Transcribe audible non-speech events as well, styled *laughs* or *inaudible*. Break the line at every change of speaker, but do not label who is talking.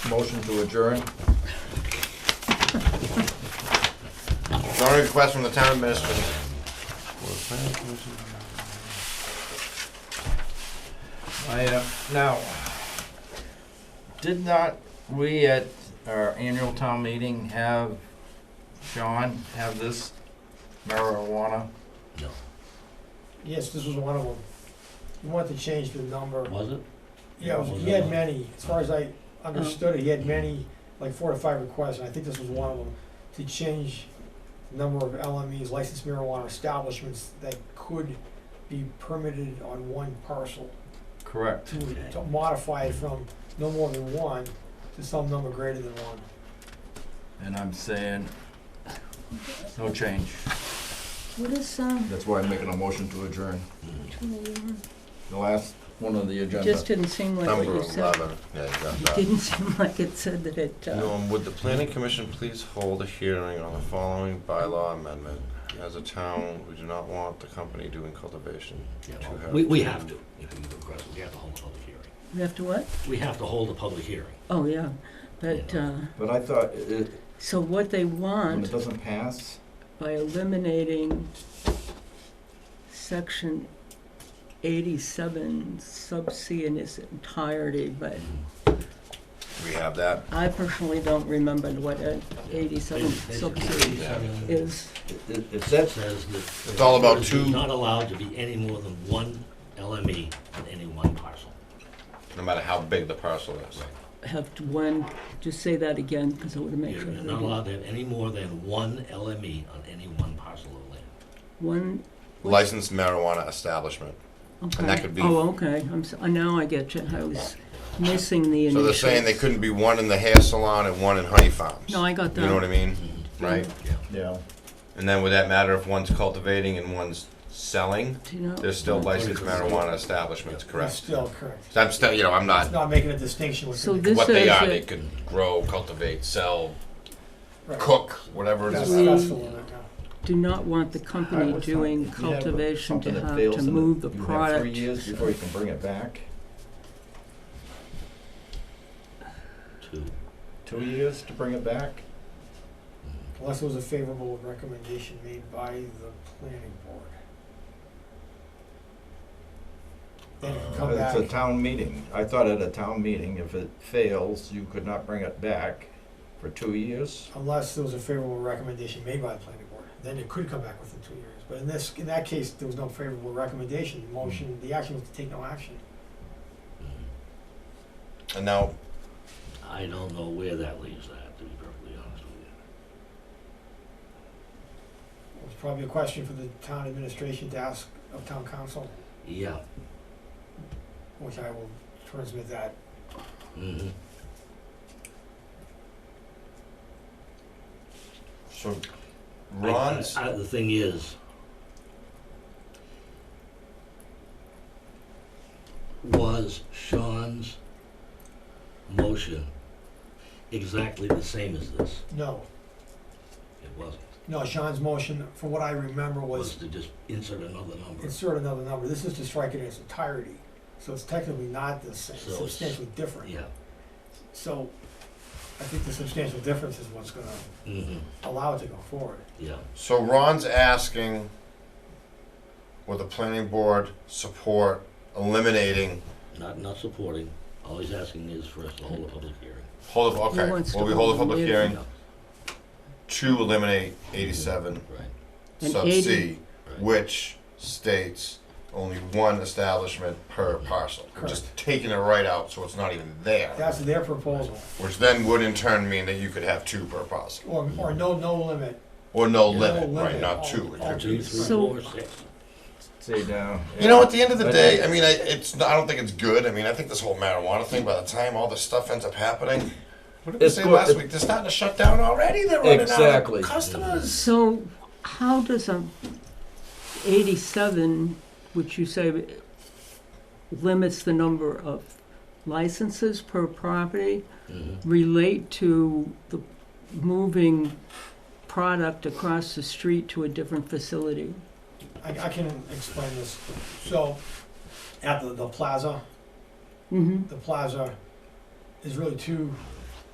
Motion to adjourn.
Zoning request from the town administrator.
I, uh, now, did not we at our annual town meeting have Sean have this marijuana?
Yes, this was one of them. You want to change the number.
Was it?
Yeah, it was- he had many, as far as I
Uh-huh.
understood it, he had many, like four to five requests, and I think this was one of them, to change the number of LMEs, licensed marijuana establishments, that could be permitted on one parcel,
Correct.
to to modify it from no more than one to some number greater than one.
And I'm saying, no change.
What is, um,
That's why I'm making a motion to adjourn.
Mm-hmm.
two,
The last one on the
uh,
agenda.
just didn't seem like what
Number
you said.
eleven. Yeah, you got
It
that.
didn't seem *laughs* like it said that it, uh,
Norm, would the planning commission please hold a hearing on the following bylaw amendment? As a town, we do not want the company doing cultivation.
Yeah,
To
well,
have
We, we
to-
have to, if we move across, we have to hold a public hearing.
we have to what?
We have to hold a public hearing.
Oh, yeah, but, uh,
But I thought, it,
so what they
when it
want
doesn't pass,
by eliminating section eighty-seven sub C in its entirety, but
Mm-hmm.
We have that.
I personally don't remember what a eighty-seven sub C
It
is.
it, it- it says
says that.
It's all about
there's
two-
Not allowed to be any more than one LME in any one parcel.
No matter how big the parcel is.
Have to one, just say that again, because I want to make
You're
sure. that
not
I-
allowed to have any more than one LME on any one parcel of land.
One,
Licensed marijuana establishment.
okay.
that could be-
Oh, okay, I'm, so- now I get you, I was missing the
So
initial.
they're saying they couldn't be one in the hair salon and one in honey farms.
No, I got that.
You know what I mean? Right?
Yeah.
And then would that matter if one's cultivating and one's selling?
Do you know?
They're still
Yeah.
licensed marijuana establishments,
It's
correct?
Still correct.
So I'm still, you know, I'm not
It's not making a distinction with.
So
the-
this
what they
is
are.
a-
They could grow, cultivate, sell,
Right.
cook, whatever it
That's,
is.
that's the one, yeah.
Do not want the company
Alright,
doing
if you have
cultivation to
something that
have
fails
to
and
move the
You have three
product.
years before you can bring it back.
Two.
Two years to bring it back.
Unless it was a favorable recommendation made by the planning board. Then it can come
Uh, It's a
back,
town meeting. I thought at a town meeting, if it fails, you could not bring it back for two years.
unless there was a favorable recommendation made by the planning board, then it could come back within two years. But in this, in that case, there was no favorable recommendation, the motion, the action was to take no action.
Mm-hmm.
And now,
I don't know where that leaves that, to be perfectly honest with you.
It was probably a question for the town administration to ask of town council,
Yeah.
which I will transmit that.
Mm-hmm.
so Ron's.
I- I- The thing is, was Sean's motion exactly the same as this?
No,
It wasn't.
no, Sean's motion, from what I remember, was
Was to just insert another number.
insert another number, this is to strike it in its entirety. So it's technically not the same,
So it's-
substantially different.
Yeah.
So I think the substantial difference is what's gonna
Mm-hmm.
allow it to go forward.
Yeah.
So Ron's asking, will the planning board support eliminating
Not not supporting. All he's asking is for us to hold a public hearing.
hold of
He
okay?
wants
Will
to
we hold a
hold
public
the-
hearing
Yeah.
to eliminate 87
Right.
And
sub
80.
C,
Right.
which states only one establishment per parcel? We're Just taking it right out, so it's not even there.
That's their proposal,
which then would in turn mean that you could have two per parcel,
or, or no, no limit.
or no
Yeah.
limit,
No
right?
limit.
Not two.
All two, three, four,
So-
six.
Stay down.
You know, at the end of the day, I mean, I, it's I don't think it's good. I mean, I think this whole marijuana thing. By the time all this stuff ends up happening, what did we
It's
say
go-
last
it-
week? They're starting to shut down already. They're running
Exactly.
out of customers.
So how does a eighty-seven, which you say limits the number of licenses per property,
Mhm.
relate to the moving product across the street to a different facility?
I, I can explain this. So at the, the plaza,
Mm-hmm.
the plaza is really two